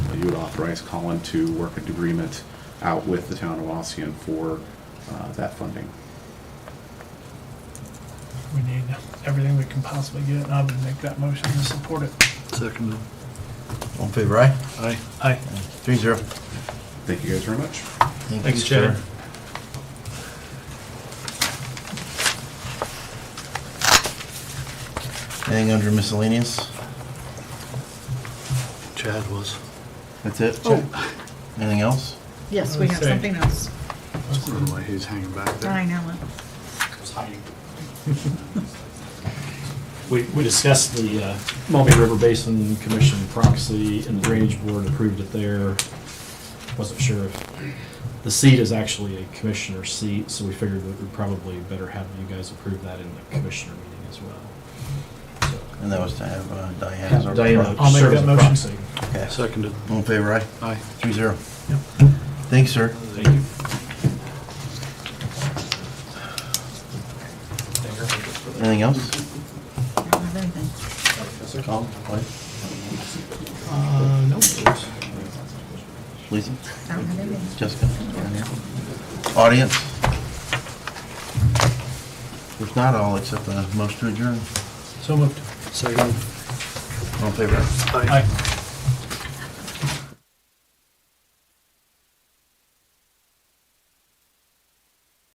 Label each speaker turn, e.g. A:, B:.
A: Uh, you would authorize Colin to work an agreement out with the town of Ossian for uh, that funding.
B: We need everything we can possibly get, and I would make that motion to support it.
C: Second.
D: All in favor, aye?
C: Aye.
B: Aye.
D: Three zero.
A: Thank you guys very much.
B: Thanks, Chad.
D: Anything under miscellaneous?
C: Chad was.
D: That's it?
E: Oh,
D: Anything else?
E: yes, we have
B: Say.
E: something else.
C: I don't know why he's hanging back there.
E: I know
F: We, we discussed the uh, Maumee River Basin Commission proxy and the Drainage Board approved it there. Wasn't sure if, the seat is actually a commissioner seat, so we figured that we probably better have you guys approve that in the commissioner meeting as well.
D: And that was to have uh, Diane as
F: So
D: our.
F: Diana
B: I'll make
F: serves
B: that
F: as
B: motion.
F: proxy.
D: Okay.
C: Seconded.
D: All in favor, aye?
C: Aye.
D: Three zero. Thanks, sir.
F: Thank you.
D: Anything else?
E: I don't have anything.
D: Colin, Lloyd,
B: Uh, no.
D: Lisa,
E: I don't have anything.
D: Jessica? Audience? There's not all except the most to adjourn.
B: So moved.
C: Seconded.
D: All in favor, aye?
C: Aye.
B: Aye.